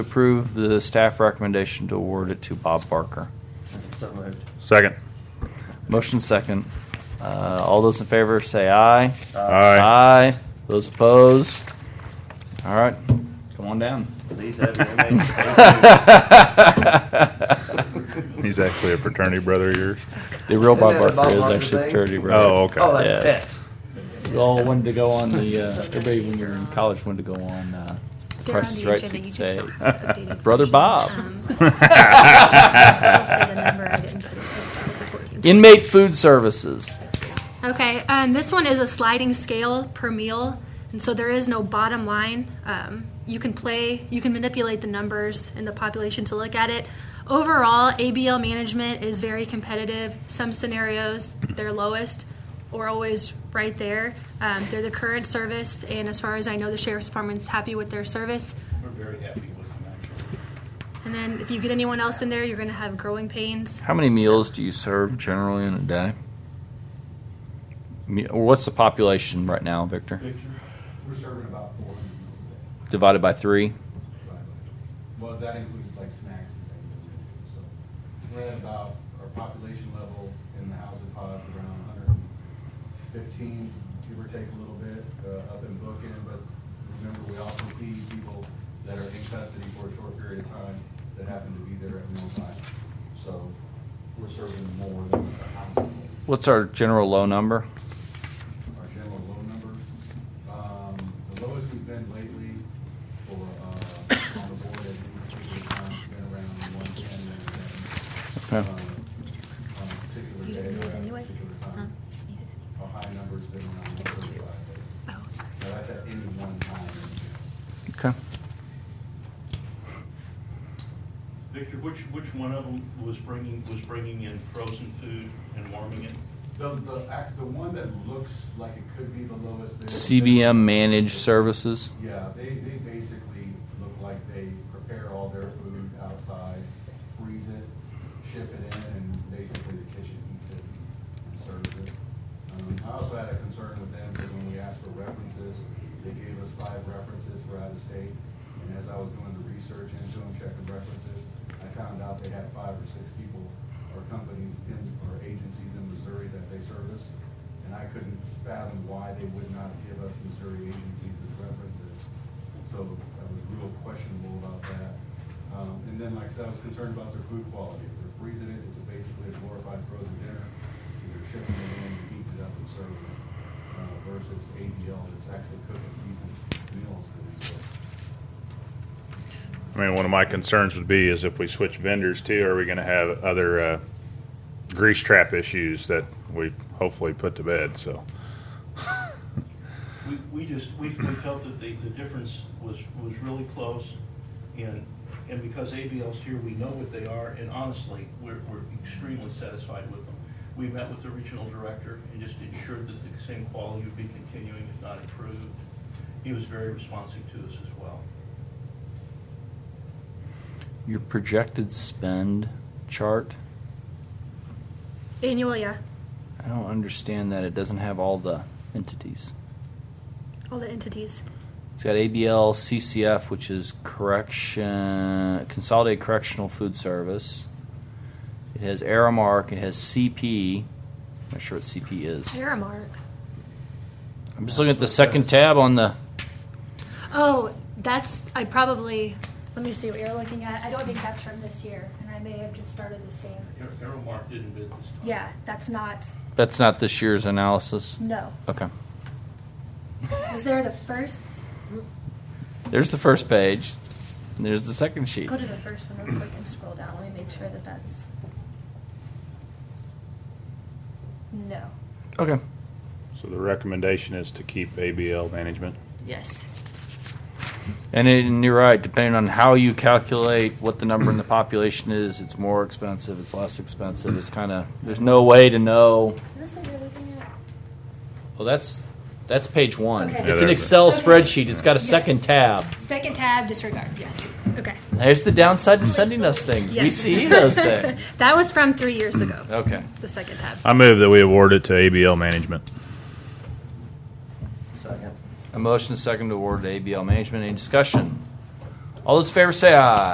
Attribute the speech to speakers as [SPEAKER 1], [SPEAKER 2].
[SPEAKER 1] Approve the staff recommendation to award it to Bob Barker.
[SPEAKER 2] So moved.
[SPEAKER 3] Second.
[SPEAKER 1] Motion second. Uh, all those in favor say aye.
[SPEAKER 3] Aye.
[SPEAKER 1] Aye. Those opposed? All right, come on down.
[SPEAKER 2] These have your names.
[SPEAKER 3] He's actually a fraternity brother of yours.
[SPEAKER 1] The real Bob
[SPEAKER 2] Isn't that a Bob
[SPEAKER 1] Barker is
[SPEAKER 2] Barker
[SPEAKER 1] actually
[SPEAKER 2] thing?
[SPEAKER 1] fraternity brother.
[SPEAKER 3] Oh, okay.
[SPEAKER 2] Oh,
[SPEAKER 1] Yeah.
[SPEAKER 2] that's pets.
[SPEAKER 1] We all wanted to go on the, uh, everybody when we were in college wanted to go on, uh,
[SPEAKER 4] They're on
[SPEAKER 1] Price is
[SPEAKER 4] the
[SPEAKER 1] Right,
[SPEAKER 4] agenda,
[SPEAKER 1] so you
[SPEAKER 4] you
[SPEAKER 1] could
[SPEAKER 4] just
[SPEAKER 1] say,
[SPEAKER 4] don't have the updated
[SPEAKER 1] Brother
[SPEAKER 4] version.
[SPEAKER 1] Bob.
[SPEAKER 4] Um, I'll say the number, I didn't put it, it was a 14.
[SPEAKER 1] Inmate food services.
[SPEAKER 4] Okay, um, this one is a sliding scale per meal, and so there is no bottom line. Um, you can play, you can manipulate the numbers and the population to look at it. Overall, ABL management is very competitive. Some scenarios, they're lowest or always right there. Um, they're the current service, and as far as I know, the sheriff's department's happy with their service.
[SPEAKER 5] We're very happy with them, actually.
[SPEAKER 4] And then if you get anyone else in there, you're going to have growing pains.
[SPEAKER 1] How many meals do you serve generally in a day? Me- Or what's the population right now, Victor?
[SPEAKER 5] Victor, we're serving about four hundred meals a
[SPEAKER 1] Divided by three?
[SPEAKER 5] day. Well, that includes like snacks and things that we do, so. We're at about, our population level in the housing pods around hundred and fifteen, give or take a little bit, uh, up in Bookin, but remember, we also feed people that are in custody for a short period of time that happen to be there at mealtime. So we're serving more than the housing. level.
[SPEAKER 1] What's our general low number?
[SPEAKER 5] our general low number. Um, The lowest we've been lately for, uh, on the board at any particular time has been around one ten, one ten. Uh,
[SPEAKER 1] Okay.
[SPEAKER 5] On a particular
[SPEAKER 4] You
[SPEAKER 5] day
[SPEAKER 4] didn't need
[SPEAKER 5] or
[SPEAKER 4] it
[SPEAKER 5] at a
[SPEAKER 4] anyway?
[SPEAKER 5] particular
[SPEAKER 4] Huh?
[SPEAKER 5] time.
[SPEAKER 4] You didn't.
[SPEAKER 5] Our high number's been around one thirty-five.
[SPEAKER 4] Oh, sorry.
[SPEAKER 5] Now, that's at any one time.
[SPEAKER 1] Okay.
[SPEAKER 6] Victor, which, which one of them was bringing, was bringing in frozen food and warming it?
[SPEAKER 5] The, the, act- the one that looks like it could be the lowest bid.
[SPEAKER 1] CBM managed services.
[SPEAKER 5] Yeah, they, they basically look like they prepare all their food outside, freeze it, ship it in, and basically the kitchen eats it and serves it. Um, I also had a concern with them, because when we asked for references, they gave us five references for out of state. And as I was doing the research into them, checking references, I found out they had five or six people or companies in, or agencies in Missouri that they service. And I couldn't fathom why they would not give us Missouri agencies as references. So I was real questionable about that. Um, and then, like I said, I was concerned about their food quality. If they're freezing it, it's basically a glorified frozen dinner. If They're shipping it in, you heat it up and serve it, uh, versus ADL that's actually cooking decent meals for these folks.
[SPEAKER 3] I mean, one of my concerns would be is if we switch vendors too, are we going to have other uh, grease trap issues that we hopefully put to bed? So,
[SPEAKER 6] We, we just, we, we felt that the, the difference was, was really close, and, and because ABL's here, we know what they are, and honestly, we're, we're extremely satisfied with them. We met with the regional director and just ensured that the same quality would be continuing, if not improved. He was very responsive to us as well.
[SPEAKER 1] Your projected spend chart.
[SPEAKER 4] Annual, yeah.
[SPEAKER 1] I don't understand that it doesn't have all the entities.
[SPEAKER 4] All the entities.
[SPEAKER 1] It's got ABL CCF, which is correction consolidated correctional food service. It has Aramark. It has CP. I'm not sure what CP is.
[SPEAKER 4] Aramark.
[SPEAKER 1] I'm just looking at the second tab on the.
[SPEAKER 4] Oh, that's, I probably, let me see what you're looking at. I don't think that's from this year, and I may have just started the same.
[SPEAKER 6] Ar- Aramark didn't bid this time.
[SPEAKER 4] Yeah, that's not,
[SPEAKER 1] That's not this year's analysis.
[SPEAKER 4] no.
[SPEAKER 1] Okay.
[SPEAKER 4] Is there the first?
[SPEAKER 1] There's the first page. And there's the second sheet.
[SPEAKER 4] Go to the first one real quick and scroll down. Let me make sure that that's. No.
[SPEAKER 1] Okay.
[SPEAKER 3] so the recommendation is to keep ABL management.
[SPEAKER 7] Yes.
[SPEAKER 1] And, it, and you're right. Depending on how you calculate what the number in the population is, it's more expensive. It's less expensive. It's kind of there's no way to know.
[SPEAKER 4] Is this what you're looking at?
[SPEAKER 1] Well, that's that's page one.
[SPEAKER 4] Okay. Yeah,
[SPEAKER 1] It's
[SPEAKER 3] there
[SPEAKER 1] an
[SPEAKER 3] it
[SPEAKER 1] Excel
[SPEAKER 4] is. Okay.
[SPEAKER 1] spreadsheet. It's got a
[SPEAKER 4] Yes.
[SPEAKER 1] second tab.
[SPEAKER 4] Second tab, disregard, yes. Okay.
[SPEAKER 1] There's the downside to sending us things. We
[SPEAKER 4] Yes.
[SPEAKER 1] see those things.
[SPEAKER 4] That was from three years ago,
[SPEAKER 1] Okay.
[SPEAKER 4] the second tab.
[SPEAKER 3] I move that we award it to ABL management.
[SPEAKER 2] Second.
[SPEAKER 1] A motion second to award to ABL Management. Any discussion? All those in favor say aye.